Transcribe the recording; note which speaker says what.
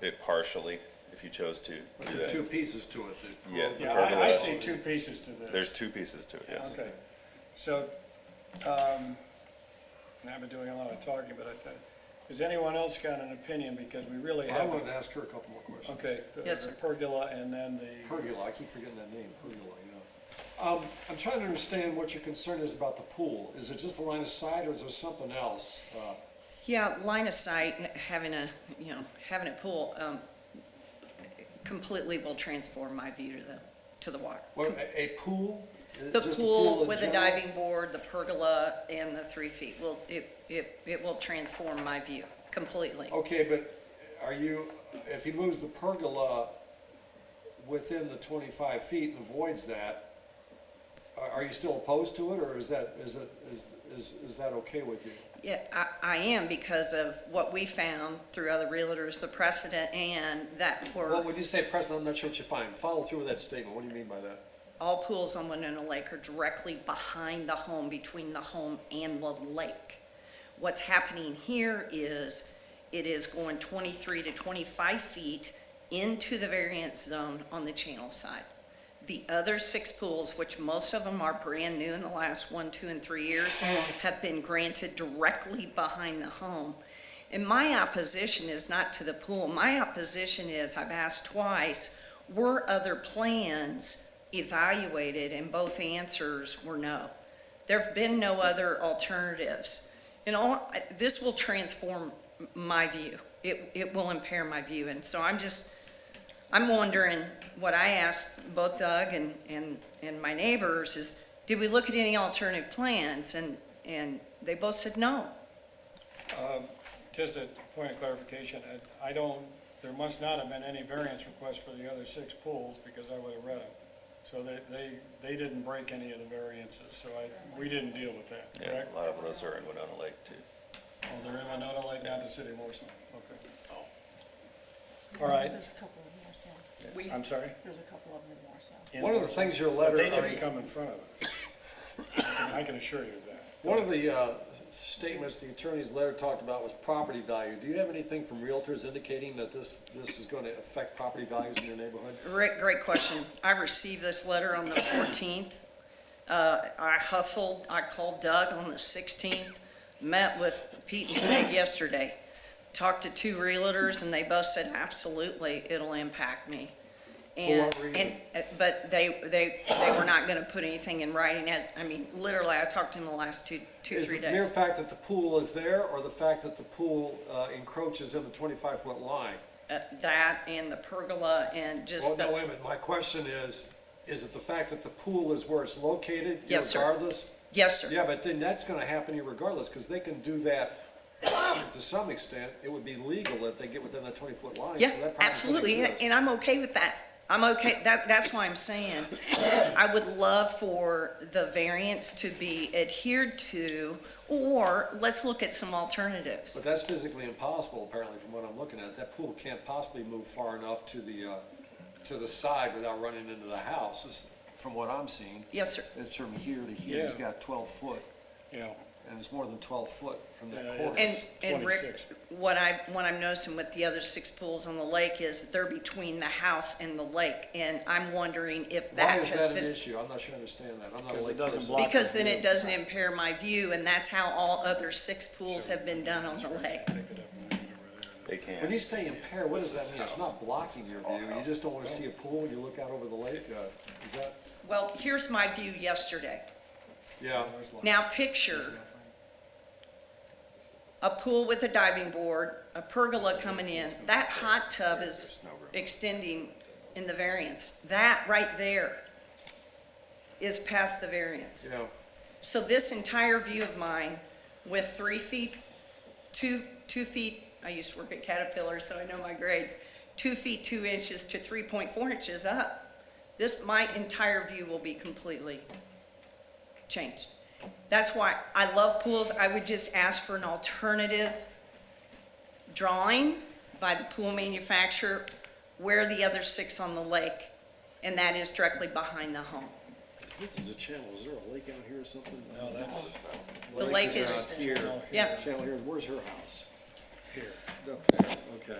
Speaker 1: it partially, if you chose to
Speaker 2: But
Speaker 1: do
Speaker 2: there are two
Speaker 1: that.
Speaker 2: pieces to it that.
Speaker 1: Yeah.
Speaker 2: involve the
Speaker 1: the
Speaker 3: Yeah,
Speaker 1: pergola.
Speaker 3: I, I see two pieces to this.
Speaker 1: There's two pieces to it, yes.
Speaker 3: Okay, so, um, and I've been doing a lot of talking, but I thought, has anyone else got an opinion, because we really
Speaker 2: I
Speaker 3: have,
Speaker 2: wanted to ask her a couple more questions.
Speaker 3: okay, the
Speaker 4: Yes,
Speaker 3: the
Speaker 4: sir.
Speaker 3: pergola and then the,
Speaker 2: Pergola, I keep forgetting that name, pergola, yeah. Um, I'm trying to understand what your concern is about the pool. Is it just the line of sight or is there something else? Uh,
Speaker 4: Yeah, line of sight, and having a, you know, having a pool um, completely will transform my view to the, to the water.
Speaker 2: What, a, a pool? Is it
Speaker 4: The
Speaker 2: just a
Speaker 4: pool
Speaker 2: in
Speaker 4: with a
Speaker 2: general?
Speaker 4: diving board, the pergola, and the three feet will, it, it, it will transform my view completely.
Speaker 2: Okay, but are you, if he moves the pergola within the twenty-five feet and avoids that, are, are you still opposed to it or is that, is it, is, is, is that okay with you?
Speaker 4: Yeah, I, I am because of what we found through other realtors, the precedent and that
Speaker 2: Well,
Speaker 4: were,
Speaker 2: when you say precedent, I'm not sure what you find. Follow through with that statement. What do you mean by that?
Speaker 4: all pools on Winona Lake are directly behind the home, between the home and the lake. What's happening here is it is going twenty-three to twenty-five feet into the variance zone on the channel side. The other six pools, which most of them are brand new in the last one, two, and three years, have been granted directly behind the home. And my opposition is not to the pool. My opposition is, I've asked twice, were other plans evaluated? And both answers were no. There've been no other alternatives. And all, I- this will transform m- my view. It, it will impair my view. And so I'm just, I'm wondering, what I asked both Doug and, and, and my neighbors is, did we look at any alternative plans? And, and they both said no.
Speaker 3: um, just a point of clarification, I, I don't, there must not have been any variance requests for the other six pools, because I would have read them. So they, they, they didn't break any of the variances, so I, we didn't deal with that,
Speaker 1: Yeah,
Speaker 3: correct?
Speaker 1: a lot of those are in Winona Lake too.
Speaker 3: Oh, they're in Winona Lake, not the city of Morrison, okay.
Speaker 1: Oh.
Speaker 3: All right,
Speaker 5: There's a couple in Morristown.
Speaker 4: We,
Speaker 3: I'm sorry?
Speaker 5: There's a couple of them in Morristown.
Speaker 3: in
Speaker 2: One of the
Speaker 3: Morrison.
Speaker 2: things your
Speaker 3: But
Speaker 2: letter,
Speaker 3: they
Speaker 2: I
Speaker 3: didn't
Speaker 2: mean,
Speaker 3: come in front of us. I can- I can assure you of that.
Speaker 2: one of the uh, statements the attorney's letter talked about was property value. Do you have anything from realtors indicating that this, this is going to affect property values in your neighborhood?
Speaker 4: Rick, great question. I received this letter on the 14th. Uh, I hustled, I called Doug on the 16th, met with Pete and Peg yesterday, talked to two realtors, and they both said, absolutely, it'll impact me.
Speaker 2: For what
Speaker 4: And-
Speaker 2: reason?
Speaker 4: and- uh, But they, they, they were not going to put anything in writing as, I mean, literally, I talked to him the last two, two,
Speaker 2: Is the
Speaker 4: three
Speaker 2: mere
Speaker 4: days.
Speaker 2: fact that the pool is there or the fact that the pool uh, encroaches in the twenty-five foot line?
Speaker 4: Uh, That and the pergola and
Speaker 2: Well,
Speaker 4: just
Speaker 2: Oh, no,
Speaker 4: the,
Speaker 2: wait a minute. My question is, is it the fact that the pool is where it's located?
Speaker 4: Yes, sir.
Speaker 2: Regardless?
Speaker 4: yes, sir.
Speaker 2: Yeah, but then that's gonna happen regardless, because they can do that to some extent. It would be legal if they get within that twenty-foot line. so
Speaker 4: Yeah,
Speaker 2: that problem's gonna
Speaker 4: absolutely, and-
Speaker 2: exist.
Speaker 4: and I'm okay with that. I'm okay, that, that's why I'm saying, I would love for the variance to be adhered to, or let's look at some alternatives.
Speaker 2: But that's physically impossible, apparently, from what I'm looking at. That pool can't possibly move far enough to the, uh, to the side without running into the house, is- from what I'm seeing.
Speaker 4: Yes, sir.
Speaker 2: It's from here to here, he's
Speaker 3: Yeah.
Speaker 2: got twelve foot,
Speaker 3: Yeah,
Speaker 2: and it's more than twelve foot from
Speaker 3: Yeah,
Speaker 2: that
Speaker 3: Uh, it's-
Speaker 2: corner.
Speaker 4: And, and Rick,
Speaker 3: 26.
Speaker 4: what I, what I'm noticing with the other six pools on the lake is they're between the house and the lake, and I'm wondering if
Speaker 2: Why
Speaker 4: that
Speaker 2: is
Speaker 4: has
Speaker 2: that an
Speaker 4: been.
Speaker 2: issue? I'm not sure I understand that. I'm not a
Speaker 3: Because it
Speaker 2: lake
Speaker 3: doesn't
Speaker 2: person.
Speaker 3: block-
Speaker 4: Because then it doesn't impair my view, and that's how all other six pools have been done on the lake.
Speaker 3: picked it up and ran it over there.
Speaker 1: They
Speaker 2: When you
Speaker 1: can.
Speaker 2: say impair, what
Speaker 1: This
Speaker 2: does that
Speaker 1: is
Speaker 2: mean? It's
Speaker 1: house.
Speaker 2: not blocking
Speaker 1: This is
Speaker 2: your
Speaker 1: all
Speaker 2: view, you
Speaker 1: house.
Speaker 2: just don't wanna see a pool when you look out over the lake, uh, is that,
Speaker 4: Well, here's my view yesterday.
Speaker 2: yeah.
Speaker 4: Now picture a pool with a diving board, a pergola coming in, that hot tub is extending in the variance. That right there is past the variance.
Speaker 2: Yeah,
Speaker 4: So this entire view of mine with three feet, two, two feet, I used to work at Caterpillar, so I know my grades, two feet, two inches to three point four inches up. This, my entire view will be completely changed. That's why I love pools. I would just ask for an alternative drawing by the pool manufacturer where the other six on the lake, and that is directly behind the home.
Speaker 6: This is a channel, is there a lake out here or something?
Speaker 3: No, that's
Speaker 4: The lake is,
Speaker 2: out here.
Speaker 3: out here,
Speaker 4: yeah.
Speaker 6: Channel here, where's her house?
Speaker 3: here.
Speaker 2: Okay, okay.